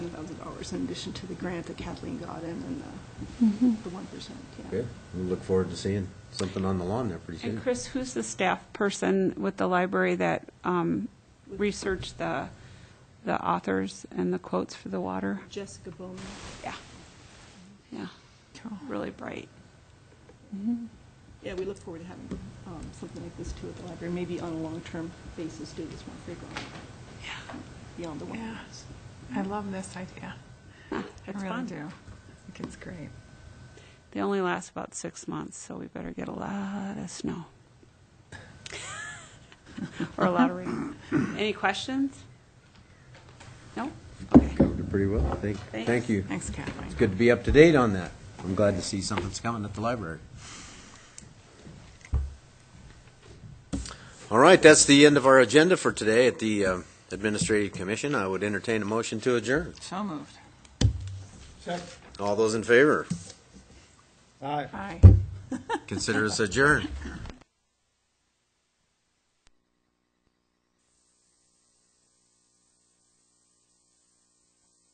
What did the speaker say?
$100,000 in addition to the grant that Kathleen got in and uh, Mm-hmm. the, the 1%, yeah. Good. We look forward to seeing something on the lawn there pretty soon. And Chris, who's the staff person with the library that um, researched the, the authors and the quotes for the water? Jessica Bowman. Yeah. Yeah, really bright. Yeah, we look forward to having um, something like this too at the library, maybe on a long-term basis, do this more frequently, Yeah, beyond the one. yeah. I love this idea. I It's really fun. do. I think it's great. They only last about six months, so we better get a lot of snow. Or a lot of rain. Any questions? No? Okay. Covered it pretty well, thank, Thanks. thank you. Thanks, Kathleen. It's good to be up to date on that. I'm glad to see something's coming at the library. All right, that's the end of our agenda for today at the um, Administrative Commission. I would entertain a motion to adjourn. So moved. All those in favor, All right. Bye. consider us adjourned.